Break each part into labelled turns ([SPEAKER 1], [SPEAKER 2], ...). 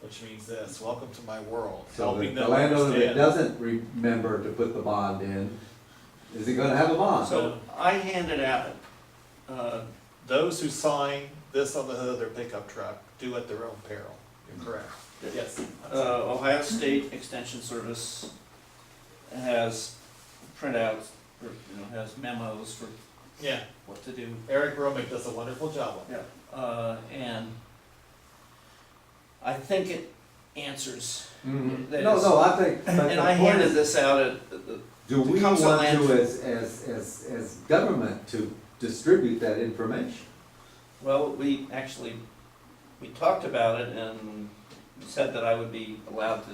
[SPEAKER 1] which means this, welcome to my world,
[SPEAKER 2] So the
[SPEAKER 1] helping
[SPEAKER 2] the
[SPEAKER 1] them
[SPEAKER 2] landowner that
[SPEAKER 1] understand.
[SPEAKER 2] doesn't remember to put the bond in, is he gonna have a bond?
[SPEAKER 1] So I handed out, uh, those who sign this on the hood of their pickup truck do at their own peril. You're correct. Yes.
[SPEAKER 3] Uh, Ohio State Extension Service has printouts, or, you know, has memos for
[SPEAKER 1] Yeah,
[SPEAKER 3] what to do.
[SPEAKER 1] Eric Romick does a wonderful job on
[SPEAKER 3] Yeah. Uh, and I think it answers.
[SPEAKER 4] Mm-hmm.
[SPEAKER 2] Mhm.
[SPEAKER 3] That
[SPEAKER 2] No,
[SPEAKER 3] is-
[SPEAKER 2] no, I think. but
[SPEAKER 3] And
[SPEAKER 2] the
[SPEAKER 3] I
[SPEAKER 2] point
[SPEAKER 3] handed
[SPEAKER 2] is,
[SPEAKER 3] this out at, the-
[SPEAKER 2] Do we want
[SPEAKER 3] Council
[SPEAKER 2] to,
[SPEAKER 3] Land-
[SPEAKER 2] as, as, as, as government, to distribute that information?
[SPEAKER 3] well, we actually, we talked about it and said that I would be allowed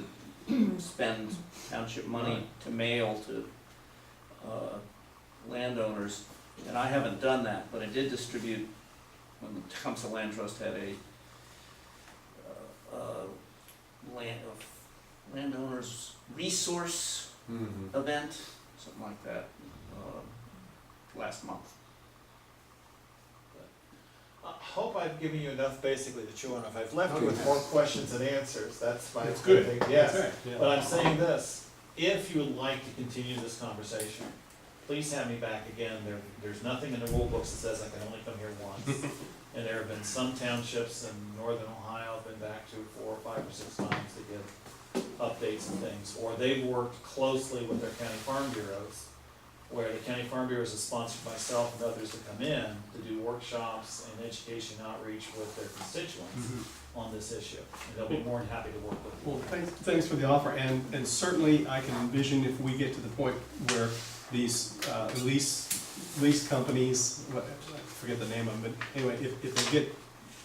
[SPEAKER 3] to spend township money to mail to, uh, landowners. And I haven't done that, but I did distribute, when the Tecumseh Land Trust had a, uh, uh, land, of landowners resource
[SPEAKER 4] Mm-hmm.
[SPEAKER 2] Mhm.
[SPEAKER 3] event, something like that, um, last month.
[SPEAKER 1] I hope I've given you enough basically to chew on. If I've left you with more questions and answers, that's my
[SPEAKER 4] That's good. Uh,
[SPEAKER 1] thing, yes.
[SPEAKER 4] That's right, yeah.
[SPEAKER 1] But I'm saying this, if you would like to continue this conversation, please have me back again. There, there's nothing in the rule books that says I can only come here once. And there have been some townships in northern Ohio have been back to four or five or six times to give updates and things. Or they've worked closely with their county farm bureaus, where the county farm bureaus have sponsored myself and others to come in to do workshops and education outreach with their constituents
[SPEAKER 4] Mhm.
[SPEAKER 1] on this issue. And they'll be more than happy to work with you.
[SPEAKER 4] Well, thanks, thanks for the offer, and, and certainly I can envision if we get to the point where these uh, lease, lease companies, what- I forget the name of them, but anyway, if, if they get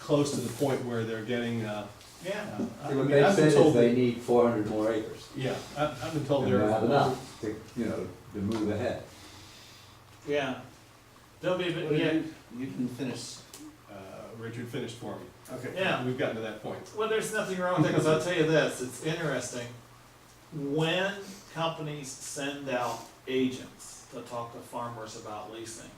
[SPEAKER 4] close to the point where they're getting, uh,
[SPEAKER 1] Yeah.
[SPEAKER 4] uh, I
[SPEAKER 2] What
[SPEAKER 4] mean,
[SPEAKER 2] they
[SPEAKER 4] I've been
[SPEAKER 2] said is
[SPEAKER 4] told,
[SPEAKER 2] they need four hundred more acres,
[SPEAKER 4] yeah, I- I've been told
[SPEAKER 2] and they're
[SPEAKER 4] they're.
[SPEAKER 2] not enough to, you know, to move ahead.
[SPEAKER 1] Yeah. There'll be, a bit-
[SPEAKER 3] What
[SPEAKER 1] yeah,
[SPEAKER 3] did You you can finish.
[SPEAKER 4] Uh, Richard finished for me.
[SPEAKER 3] Okay.
[SPEAKER 1] yeah.
[SPEAKER 4] We've gotten to that point.
[SPEAKER 1] Well, there's nothing wrong with it, because I'll tell you this, it's interesting. When companies send out agents to talk to farmers about leasing,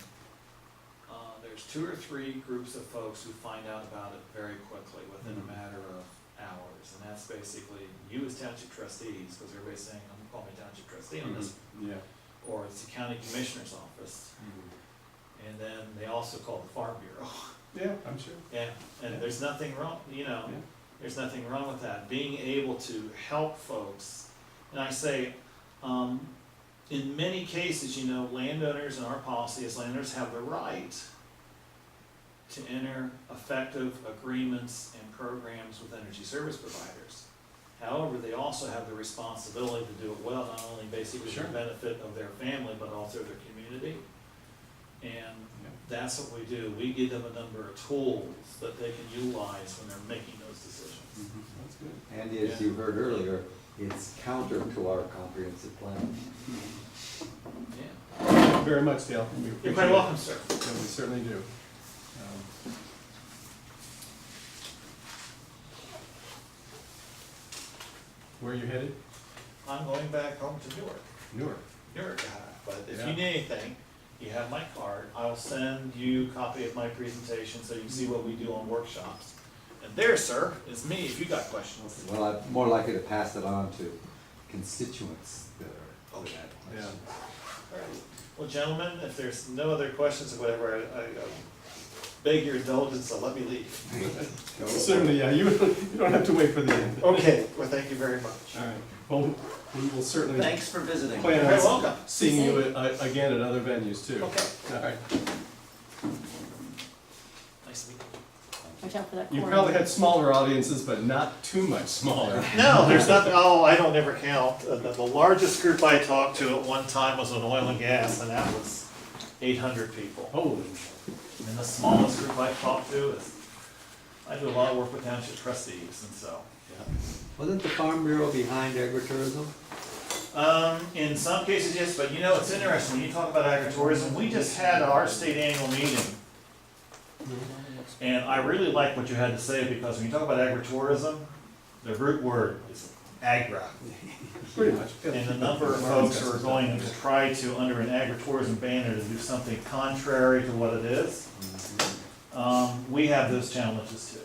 [SPEAKER 1] uh, there's two or three groups of folks who find out about it very quickly, within
[SPEAKER 3] Mm-hmm.
[SPEAKER 1] a matter of hours. And that's basically you as township trustees, because everybody's saying, I'm calling me township trustee on this,
[SPEAKER 4] Mm-hmm. Yeah.
[SPEAKER 3] Mm-hmm.
[SPEAKER 1] or it's the county commissioner's office. Mm-hmm. And then they also call the farm bureau.
[SPEAKER 4] Yeah, I'm sure.
[SPEAKER 1] Yeah, and there's nothing wrong, you know,
[SPEAKER 4] Yeah.
[SPEAKER 1] there's nothing wrong with that, being able to help folks. And I say, um, in many cases, you know, landowners and our policy as landowners have the right to enter effective agreements and programs with energy service providers. However, they also have the responsibility to do it well, not only basically for the
[SPEAKER 4] Sure.
[SPEAKER 1] benefit of their family, but also their community. And
[SPEAKER 4] Yeah.
[SPEAKER 1] that's what we do. We give them a number of tools that they can utilize when they're making those decisions.
[SPEAKER 4] That's good.
[SPEAKER 2] And as you heard earlier, it's counter to our comprehensive plan.
[SPEAKER 1] Yeah.
[SPEAKER 4] Thank you Very much, Dale. We
[SPEAKER 1] You're
[SPEAKER 4] appreciate
[SPEAKER 1] quite
[SPEAKER 4] it.
[SPEAKER 1] welcome, sir.
[SPEAKER 4] Yeah, we certainly do. Um, Where are you headed?
[SPEAKER 1] I'm going back home to Newark,
[SPEAKER 4] Newark.
[SPEAKER 1] Newark, Ohio. but if
[SPEAKER 4] Yeah.
[SPEAKER 1] you need anything, you have my card. I'll send you a copy of my presentation so you can see what we do on workshops. And there, sir, is me if you got questions.
[SPEAKER 2] Well, I'm more likely to pass it on to constituents that are.
[SPEAKER 1] Okay.
[SPEAKER 4] Yeah.
[SPEAKER 1] All right. Well, gentlemen, if there's no other questions or whatever, I, I uh, beg your indulgence, so let me leave.
[SPEAKER 2] Oh.
[SPEAKER 4] Certainly, yeah, you, you don't have to wait for the end. All
[SPEAKER 1] Okay, well, thank you very much.
[SPEAKER 4] right, well, we will certainly
[SPEAKER 3] Thanks for visiting.
[SPEAKER 1] You're
[SPEAKER 4] plan
[SPEAKER 1] very
[SPEAKER 4] on
[SPEAKER 1] welcome.
[SPEAKER 4] seeing you a- a- again at other venues too.
[SPEAKER 1] Okay.
[SPEAKER 4] All right,
[SPEAKER 1] Nice to meet you.
[SPEAKER 5] Watch out for that
[SPEAKER 4] you
[SPEAKER 5] corner.
[SPEAKER 4] probably had smaller audiences, but not too much smaller.
[SPEAKER 1] No, there's nothing, oh, I don't ever count. Uh, The the largest group I talked to at one time was on oil and gas, and that was eight hundred people.
[SPEAKER 4] Holy,
[SPEAKER 1] And the smallest group I talked to is, I do a lot of work with township trustees, and so, yeah.
[SPEAKER 2] Wasn't the Farm Bureau behind agritourism?
[SPEAKER 1] Um, in some cases, yes, but you know, it's interesting, when you talk about agritourism, we just had our state annual meeting. And I really like what you had to say, because when you talk about agritourism, the root word is agra.
[SPEAKER 4] pretty much.
[SPEAKER 1] And the number of folks who are going to try to, under an agritourism banner, to do something contrary to what it is, um, we have those challenges too.